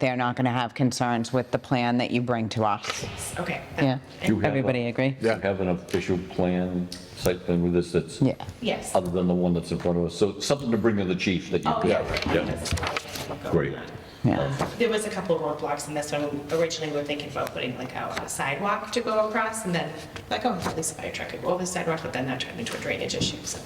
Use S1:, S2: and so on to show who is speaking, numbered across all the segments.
S1: they're not going to have concerns with the plan that you bring to us.
S2: Okay.
S1: Yeah,
S2: You
S3: have a-
S1: everybody agree?
S3: Do you have an official plan, site plan with this that's?
S1: Yeah.
S2: Yes.
S3: Other than the one that's in front of us, so something to bring to the chief that you.
S2: Oh, yeah. right.
S3: Great.
S1: Yeah.
S2: There was a couple of roadblocks in this one. Originally, we were thinking about putting like out a sidewalk to go across and then like, oh, at least a fire truck could go over the sidewalk, but then that turned into a drainage issue, so.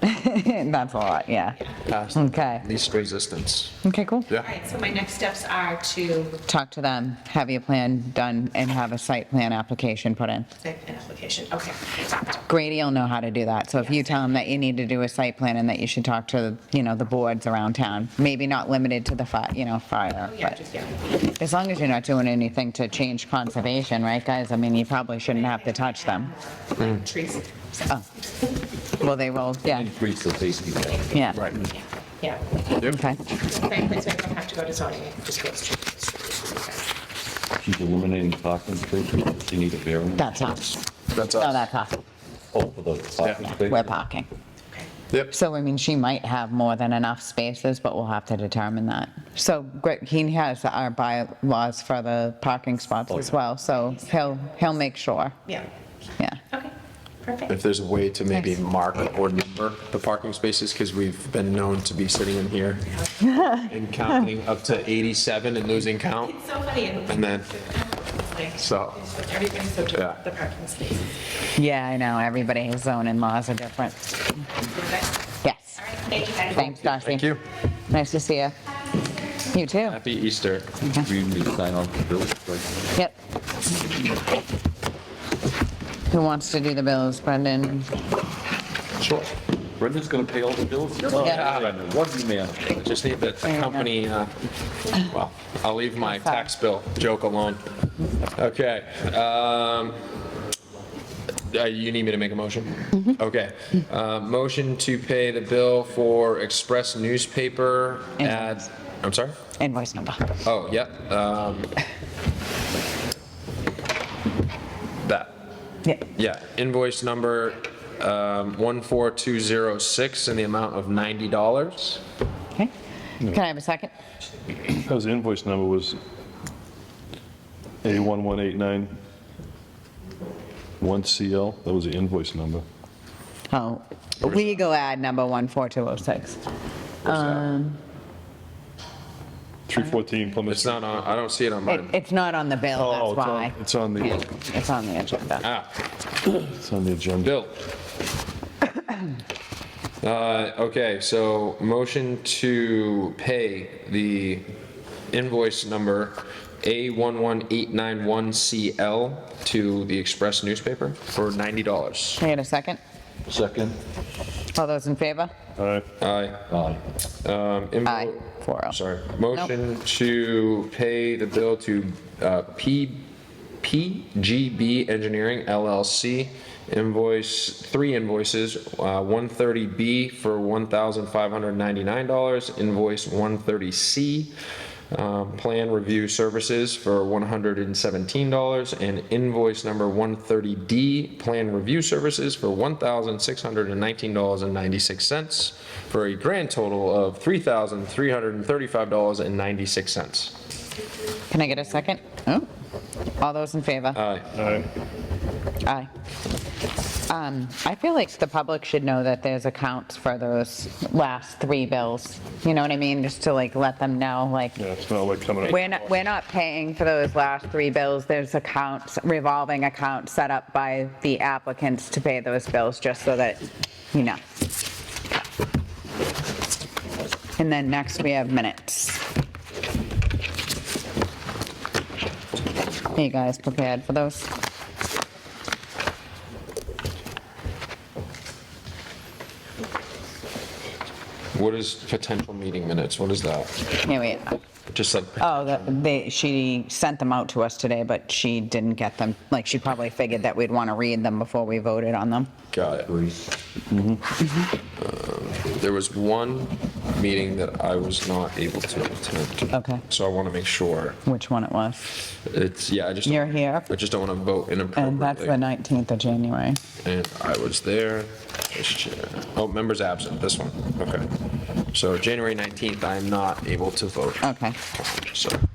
S1: That's a lot, yeah. Okay,
S4: least resistance.
S1: okay, cool.
S2: All right, so my next steps are to
S1: Talk to them, have your plan done, and have a site plan application put in.
S2: type an application, okay.
S1: Grady will know how to do that, so if you tell him that you need to do a site plan and that you should talk to, you know, the boards around town, maybe not limited to the fire, you know, fire,
S2: Yeah,
S1: but
S2: just, yeah.
S1: as long as you're not doing anything to change conservation, right, guys? I mean, you probably shouldn't have to touch them.
S2: Like Trees,
S1: Oh. Well, they will, yeah,
S3: Increase the safety. there.
S1: yeah.
S4: Right.
S2: yeah, yeah.
S1: Okay,
S2: Right, please, we don't have to go to zoning, it just goes to.
S3: She's eliminating parking spaces, you need a variance.
S1: that's us.
S4: That's
S1: No,
S4: us.
S1: that's us.
S3: Oh, for the parking
S4: Yeah.
S3: space?
S1: We're parking.
S4: Yep.
S1: So, I mean, she might have more than enough spaces, but we'll have to determine that. So, Greg, he has our bylaws for the parking spots as
S3: yeah.
S1: well, so he'll, he'll make sure,
S2: Yeah,
S1: yeah.
S2: okay, perfect.
S4: If there's a way to maybe
S2: Nice.
S4: mark or number the parking spaces, because we've been known to be sitting in here and counting up to 87 and losing count.
S2: It's so funny.
S4: And then-
S2: Like,
S4: So-
S2: Everything's so
S4: Yeah.
S2: different, the parking spaces.
S1: Yeah, I know, everybody's zone and laws are different.
S2: Okay.
S1: Yes.
S2: All right, thank you guys.
S1: Thanks, Darcy.
S4: Thank you.
S1: Nice to see you. You too.
S4: Happy Easter.
S3: We need to sign off the bills, right?
S1: Yep. Who wants to do the bills, Brendan?
S4: Sure.
S3: Brendan's gonna pay all the bills? Oh,
S1: Yeah.
S3: Brendan, What man?
S4: Just need the the
S1: you go.
S4: company, uh, well, I'll leave my
S1: Sorry.
S4: tax bill joke alone. Okay. um, uh, You need me to make a motion? Okay. Uh, Motion to pay the bill for Express newspaper at, I'm sorry?
S1: Invoice number.
S4: Oh, yep. um, That,
S1: Yep.
S4: yeah, invoice number um, 14206 in the amount of $90.
S1: Okay. Can I have a second?
S5: Because the invoice number was A11891CL, that was the invoice number.
S1: Oh, legal ad number 14206.
S4: Where's that?
S5: 314 Plymouth.
S4: It's not on, I don't see it on
S1: It-
S4: mine.
S1: It's not on the bill,
S5: Oh,
S1: that's
S5: it's on-
S1: why.
S5: It's on the,
S1: It's on the agenda.
S4: Ah,
S5: it's on the agenda.
S4: Bill. Uh, Okay, so motion to pay the invoice number A11891CL to the Express newspaper for $90.
S1: Can I get a second?
S3: Second?
S1: All those in favor?
S5: All right,
S4: Aye.
S3: Aye.
S4: Um, invo-
S1: Aye, oh. 4-0.
S4: Sorry, motion to pay the bill to uh, P- PGB Engineering LLC, invoice, three invoices, uh, 130B for $1,599, invoice 130C, um, plan review services for $117, and invoice number 130D, plan review services for $1,619.96, for a grand total of $3,335.96.
S1: Can I get a second? Oh, All those in favor?
S4: Aye.
S5: all right.
S1: Aye. Um, I feel like the public should know that there's accounts for those last three bills. You know what I mean? Just to like let them know, like,
S5: Yeah, it's not like coming up.
S1: We're not, we're not paying for those last three bills. There's accounts, revolving accounts set up by the applicants to pay those bills, just so that, you know. And then next, we have minutes. Are you guys prepared for those?
S4: What is potential meeting minutes? What is that?
S1: Yeah, wait.
S4: Just like,
S1: Oh, that- they, she sent them out to us today, but she didn't get them. Like, she probably figured that we'd want to read them before we voted on them.
S4: got it. Mm-hmm. Uh, There was one meeting that I was not able to attend.
S1: Okay.
S4: So I want to make sure.
S1: Which one it was?
S4: It's, yeah, I just.
S1: You're here.
S4: I just don't want to vote inappropriately.
S1: And that's the 19th of January.
S4: And I was there. Vice chair. Oh, members absent, this one, okay. So January 19th, I am not able to vote.
S1: Okay.
S4: So.